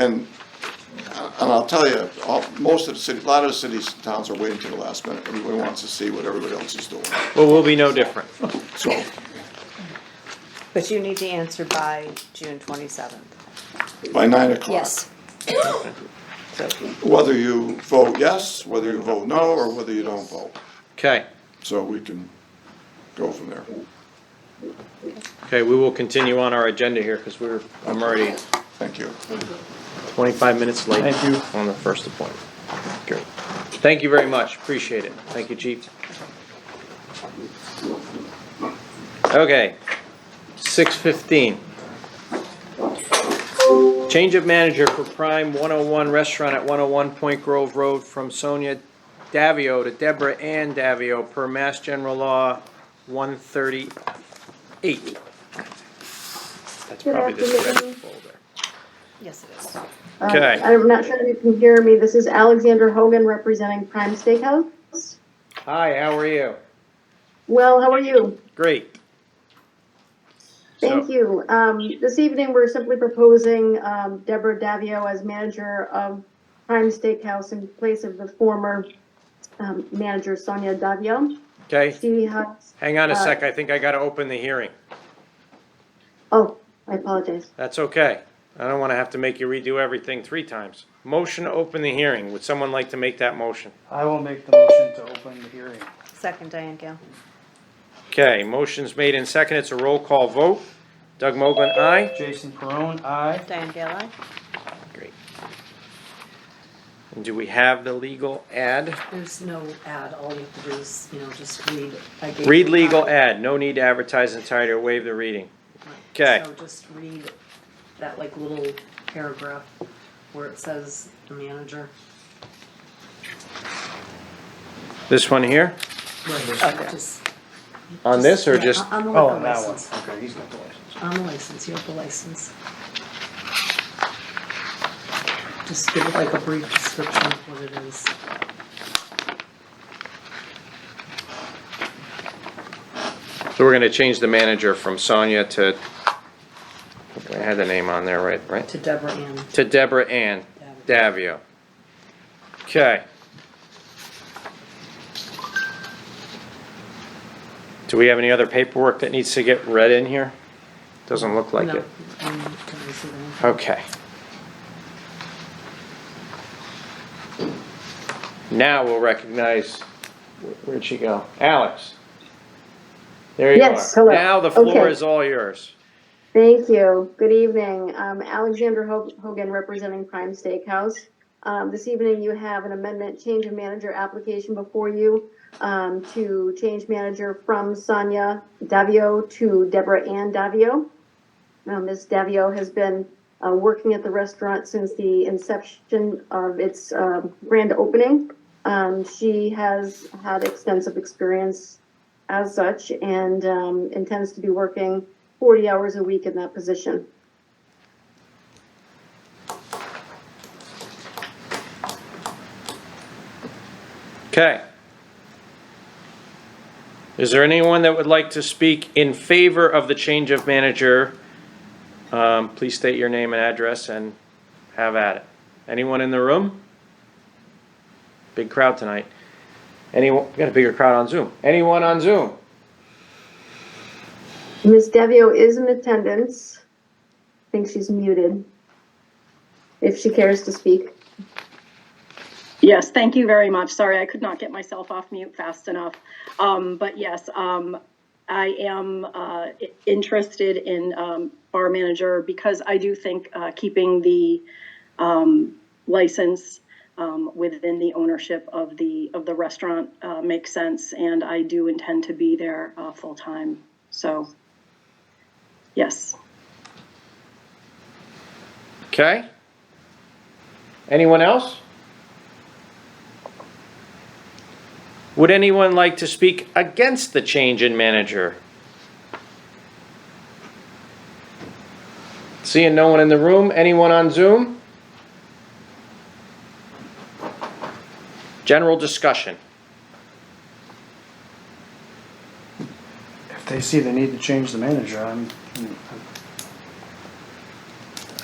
And, uh, and I'll tell you, all, most of the cities, a lot of the cities and towns are waiting till the last minute. Everybody wants to see what everybody else is doing. Well, we'll be no different. So, But you need to answer by June twenty-seventh, by nine o'clock. Yes, so Whether you vote yes, whether you vote no, or whether you don't vote. Okay, So we can go from there. okay, we will continue on our agenda here because we're, I'm already Thank you. twenty-five minutes late. Thank you. On the first appointment. Great. Thank you very much, appreciate it. Thank you, chief. Okay, six fifteen. Change of manager for Prime One Hundred One Restaurant at One Hundred One Point Grove Road from Sonia Davio to Deborah Ann Davio per Mass General Law one thirty-eight. That's Good probably this red afternoon. folder. yes, it is. Um, Okay. I'm not sure if you can hear me. This is Alexander Hogan representing Prime Steakhouse. Hi, how are you? Well, how are you? Great. Thank So- you. Um, this evening, we're simply proposing, um, Deborah Davio as manager of Prime Steakhouse in place of the former, um, manager Sonia Davio. Okay, She has, hang on a Uh, sec, I think I gotta open the hearing. oh, I apologize. That's okay. I don't wanna have to make you redo everything three times. Motion to open the hearing. Would someone like to make that motion? I will make the motion to open the hearing. Second, Diane Gale. Okay, motion's made and second. It's a roll call vote. Doug Mogul, aye? Jason Perone, aye. Diane Gale, aye. Great. And do we have the legal ad? There's no ad, all you have to do is, you know, just read. I gave Read you a legal copy. ad. No need to advertise entirely or waive the reading. Okay. So just read that like little paragraph where it says the manager. This one here? Right. Just- On this or yeah, just? On the Oh, liquor and that one, license, okay, he's got the license. on the license, you have the license. Just give it like a brief description of what it is. So we're gonna change the manager from Sonia to, I had the name on there, right, right? To Deborah Ann. To Deborah Ann Davio. Okay. Do we have any other paperwork that needs to get read in here? Doesn't look like No, it. I mean, that was the one. Okay. Now we'll recognize, wh- where'd she go? Alex. There you are. Yes, hello. Now the floor Okay. is all yours. Thank you. Good evening. Um, Alexander Ho- Hogan representing Prime Steakhouse. Um, this evening you have an amendment change of manager application before you, um, to change manager from Sonia Davio to Deborah Ann Davio. Um, Ms. Davio has been, uh, working at the restaurant since the inception of its, um, grand opening. Um, she has had extensive experience as such and, um, intends to be working 40 hours a week in that position. Okay. Is there anyone that would like to speak in favor of the change of manager? Um, please state your name and address and have at it. Anyone in the room? Big crowd tonight. Anyone, we got a bigger crowd on Zoom. Anyone on Zoom? Ms. Devio is in attendance. I think she's muted. If she cares to speak. Yes, thank you very much. Sorry, I could not get myself off mute fast enough. Um, but yes, um, I am, uh, i- interested in, um, bar manager because I do think, uh, keeping the, um, license, um, within the ownership of the, of the restaurant, uh, makes sense. And I do intend to be there, uh, full-time. So, yes. Okay. Anyone else? Would anyone like to speak against the change in manager? Seeing no one in the room, anyone on Zoom? General discussion. If they see they need to change the manager, I'm,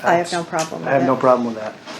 I have no problem with I have it. no problem with that.